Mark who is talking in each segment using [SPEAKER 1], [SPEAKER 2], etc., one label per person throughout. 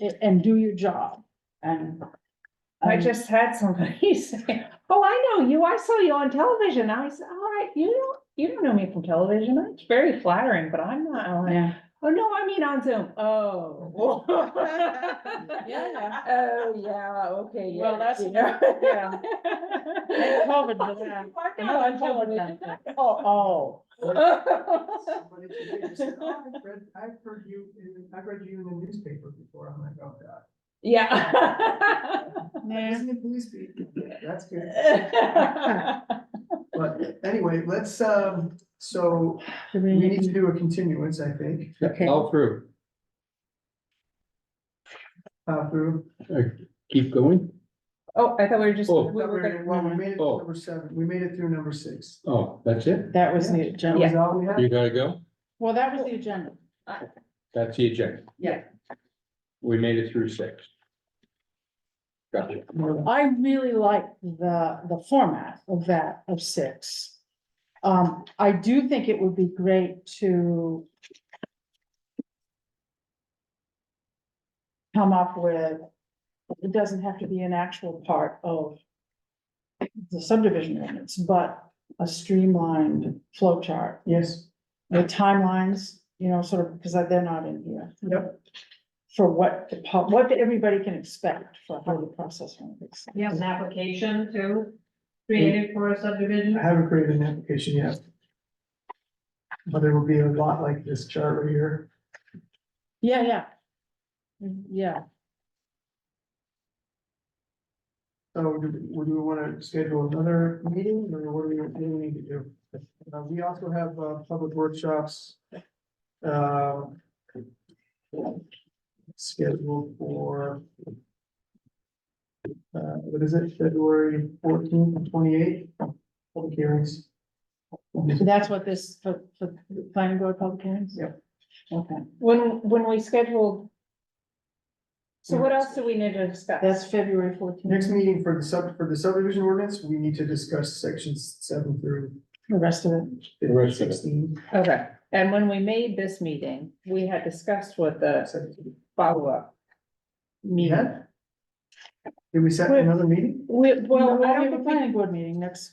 [SPEAKER 1] a- and do your job and.
[SPEAKER 2] I
[SPEAKER 1] um,
[SPEAKER 2] just had somebody say, oh, I know you, I saw you on television. I said, all right, you don't, you don't know me from television. It's very flattering, but I'm not. I'm like,
[SPEAKER 1] Yeah,
[SPEAKER 2] Oh, no, I mean on Zoom. Oh.
[SPEAKER 1] Yeah.
[SPEAKER 2] Oh, yeah, okay.
[SPEAKER 1] Well,
[SPEAKER 2] yeah,
[SPEAKER 1] that's-
[SPEAKER 2] you know.
[SPEAKER 1] yeah. And COVID was that.
[SPEAKER 2] Why
[SPEAKER 1] And I
[SPEAKER 2] not?
[SPEAKER 1] told them that. Oh,
[SPEAKER 3] Somebody today just said, "Oh, I've read, I've heard you, in- I've read you in the newspaper before, I'm like, oh god.
[SPEAKER 2] Yeah.
[SPEAKER 1] oh.
[SPEAKER 3] Isn't it police speak? Yeah, That's good, but anyway, let's, um, so we need to do a continuance, I think,
[SPEAKER 1] Okay.
[SPEAKER 4] All through,
[SPEAKER 3] uh, through.
[SPEAKER 4] keep going.
[SPEAKER 2] Oh, I thought we were just.
[SPEAKER 4] Oh.
[SPEAKER 2] we were gonna-
[SPEAKER 3] Well, we made it
[SPEAKER 4] Oh.
[SPEAKER 3] to number seven, we made it through number six.
[SPEAKER 4] Oh, that's it?
[SPEAKER 1] That was the
[SPEAKER 3] That
[SPEAKER 1] agenda.
[SPEAKER 3] was all we
[SPEAKER 4] You
[SPEAKER 3] had,
[SPEAKER 4] gotta go?
[SPEAKER 1] Well, that was the agenda.
[SPEAKER 4] That's the agenda.
[SPEAKER 1] Yeah.
[SPEAKER 4] We made it through six. Gotcha.
[SPEAKER 1] I really like the, the format of that, of six. Um, I do think it would be great to come up with, it doesn't have to be an actual part of the subdivision ordinance, but a streamlined flow chart
[SPEAKER 3] yes,
[SPEAKER 1] with timelines, you know, sort of, because they're not in here.
[SPEAKER 3] Yep.
[SPEAKER 1] For what, the pub- what everybody can expect for how the process runs.
[SPEAKER 5] You have an application too, created for a subdivision?
[SPEAKER 3] I haven't created an application yet. But it will be a lot like this chart right here,
[SPEAKER 1] Yeah, yeah. Mm, Yeah,
[SPEAKER 3] so do, we- do we wanna schedule another meeting, or what do we, what do we need to do? Uh, we also have, uh, public workshops. Uh. Scheduled for. Uh, what is it, February fourteenth and twenty-eighth, public hearings.
[SPEAKER 1] that's what this, for, for the planning board public hearings?
[SPEAKER 3] Yep.
[SPEAKER 1] Okay,
[SPEAKER 2] When, when we scheduled. So what else do we need to discuss?
[SPEAKER 1] that's February
[SPEAKER 3] Next
[SPEAKER 1] fourteenth,
[SPEAKER 3] meeting for the sub, for the subdivision ordinance, we need to discuss sections seven through
[SPEAKER 1] the rest of it.
[SPEAKER 4] The rest of it.
[SPEAKER 3] sixteen.
[SPEAKER 2] Okay, and when we made this meeting, we had discussed what the follow-up. meeting.
[SPEAKER 3] Yeah? Did we set another meeting?
[SPEAKER 2] We, well,
[SPEAKER 1] We'll
[SPEAKER 2] I
[SPEAKER 1] have
[SPEAKER 2] don't
[SPEAKER 1] a
[SPEAKER 2] think we-
[SPEAKER 1] planning board meeting next,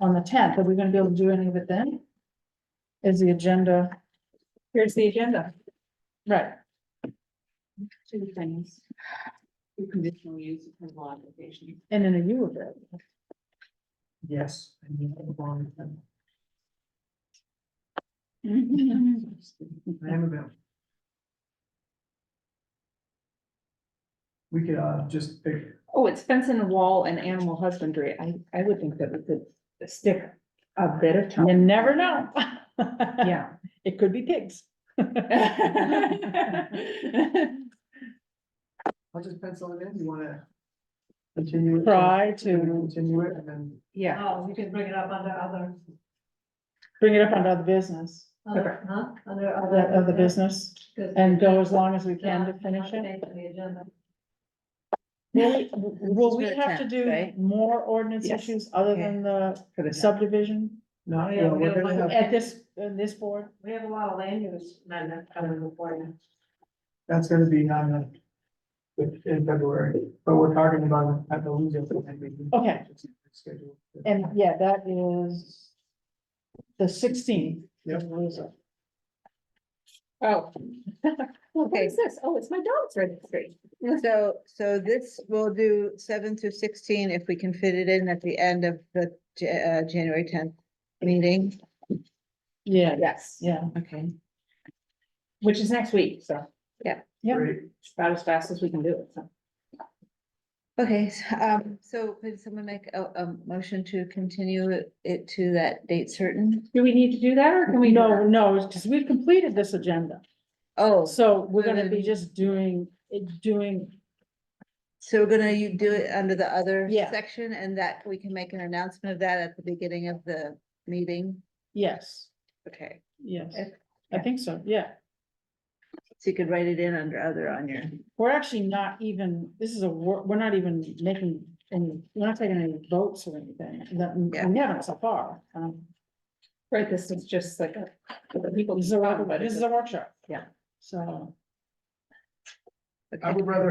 [SPEAKER 1] on the tenth, are we gonna be able to do any of it then? Is the agenda,
[SPEAKER 2] here's the agenda.
[SPEAKER 1] right,
[SPEAKER 6] two things. Your conditional use approval application.
[SPEAKER 1] and in a you of it.
[SPEAKER 3] Yes.
[SPEAKER 1] Mm-hmm.
[SPEAKER 3] I am about. We could uh just pick,
[SPEAKER 2] Oh, it's fence and wall and animal husbandry. I, I would think that we could stick a bit of
[SPEAKER 1] You
[SPEAKER 2] time.
[SPEAKER 1] never know.
[SPEAKER 2] Yeah.
[SPEAKER 1] It could be pigs.
[SPEAKER 3] I'll just pencil it in, you wanna? Continue. it?
[SPEAKER 1] Try
[SPEAKER 3] You wanna
[SPEAKER 1] to
[SPEAKER 3] Continue it and then,
[SPEAKER 2] Yeah,
[SPEAKER 5] Oh, you can bring it up under other,
[SPEAKER 1] bring it up under other business,
[SPEAKER 5] other, huh, under
[SPEAKER 1] of
[SPEAKER 5] other.
[SPEAKER 1] the, of the business,
[SPEAKER 5] Because-
[SPEAKER 1] and go as long as we can to
[SPEAKER 5] Yeah,
[SPEAKER 1] finish it.
[SPEAKER 5] update the agenda.
[SPEAKER 1] Will we- will we
[SPEAKER 6] We're
[SPEAKER 1] have to
[SPEAKER 6] tenth,
[SPEAKER 1] do
[SPEAKER 6] right?
[SPEAKER 1] more ordinance
[SPEAKER 2] Yes.
[SPEAKER 1] issues other than the
[SPEAKER 2] for the sub,
[SPEAKER 1] subdivision
[SPEAKER 3] no,
[SPEAKER 5] Yeah,
[SPEAKER 3] no,
[SPEAKER 5] we
[SPEAKER 3] we're
[SPEAKER 5] gotta
[SPEAKER 3] gonna
[SPEAKER 5] look
[SPEAKER 3] have,
[SPEAKER 1] at this, in this board?
[SPEAKER 5] We have a lot of land use amendment coming before you.
[SPEAKER 3] that's gonna be on uh, with- in February, but we're talking about at the leisure.
[SPEAKER 1] Okay.
[SPEAKER 3] Schedule.
[SPEAKER 1] And yeah, that is the sixteenth.
[SPEAKER 3] Yep.
[SPEAKER 2] oh,
[SPEAKER 6] Okay,
[SPEAKER 2] this? Oh, it's my dog's registry.
[SPEAKER 6] so, so this will do seven through sixteen if we can fit it in at the end of the Ja- uh, January tenth meeting.
[SPEAKER 1] Yeah,
[SPEAKER 2] Yes,
[SPEAKER 1] yeah,
[SPEAKER 6] Okay.
[SPEAKER 2] which is next week, so
[SPEAKER 1] yeah.
[SPEAKER 3] Great.
[SPEAKER 2] it's about as fast as we can do it, so.
[SPEAKER 6] Okay, s- um, so could someone make a, a motion to continue it- it to that date certain?
[SPEAKER 2] Do we need to do that or can we?
[SPEAKER 1] No, no, because we've completed this agenda,
[SPEAKER 6] Oh,
[SPEAKER 1] so we're gonna
[SPEAKER 6] Good.
[SPEAKER 1] be just doing, it- doing,
[SPEAKER 6] so we're gonna, you do it under the other
[SPEAKER 1] Yeah.
[SPEAKER 6] section and that we can make an announcement of that at the beginning of the meeting?
[SPEAKER 1] yes,
[SPEAKER 6] Okay,
[SPEAKER 1] yes.
[SPEAKER 6] Okay.
[SPEAKER 1] I think so, yeah.
[SPEAKER 6] so you could write it in under other on your.
[SPEAKER 1] We're actually not even, this is a, wor- we're not even making any, we're not taking any votes or anything, that,
[SPEAKER 6] Yeah.
[SPEAKER 1] we haven't so far. Um,
[SPEAKER 2] Right, this is just like a. people
[SPEAKER 1] This is
[SPEAKER 2] talk
[SPEAKER 1] a,
[SPEAKER 2] about it.
[SPEAKER 1] this is a workshop.
[SPEAKER 2] Yeah.
[SPEAKER 1] So.
[SPEAKER 3] I
[SPEAKER 6] Okay.
[SPEAKER 3] would rather